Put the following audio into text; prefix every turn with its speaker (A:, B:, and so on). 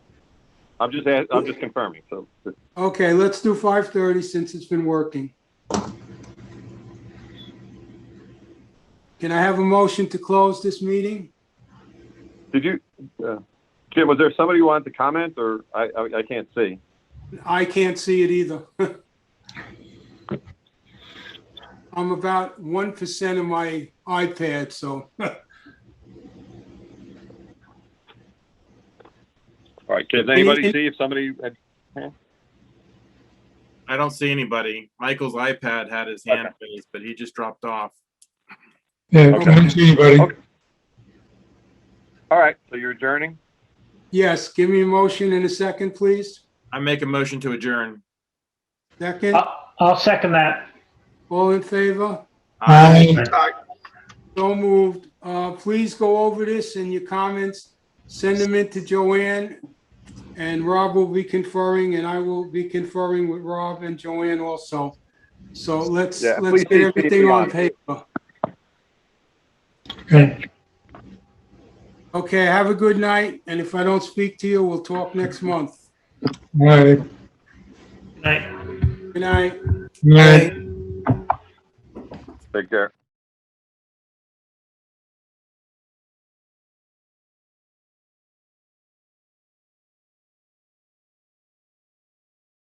A: I'm just, a- I'm just confirming, so.
B: Okay, let's do 5:30 since it's been working. Can I have a motion to close this meeting?
A: Did you, uh, Jim, was there somebody who wanted to comment, or I, I, I can't see?
B: I can't see it either. I'm about 1% of my iPad, so
A: All right, can anybody
B: Any-
A: see if somebody, had-
C: I don't see anybody. Michael's iPad had his hand raised, but he just dropped off.
D: Yeah,
B: Okay.
D: I don't see anybody.
A: Okay. all right, so you're adjourning?
B: yes, give me a motion in a second, please.
C: I make a motion to adjourn.
B: Second,
E: I'll I'll second that.
B: all in favor?
D: Aye.
B: So moved. Uh, Please go over this and your comments, send them in to Joanne, and Rob will be conferring, and I will be conferring with Rob and Joanne also. So let's,
A: Yeah, please
B: let's get
A: see
B: everything
A: CP
B: on
A: on.
B: paper.
E: Okay.
B: Okay, have a good night, and if I don't speak to you, we'll talk next month.
D: Aye.
E: Good night.
B: Good night.
D: Aye.
A: Take care.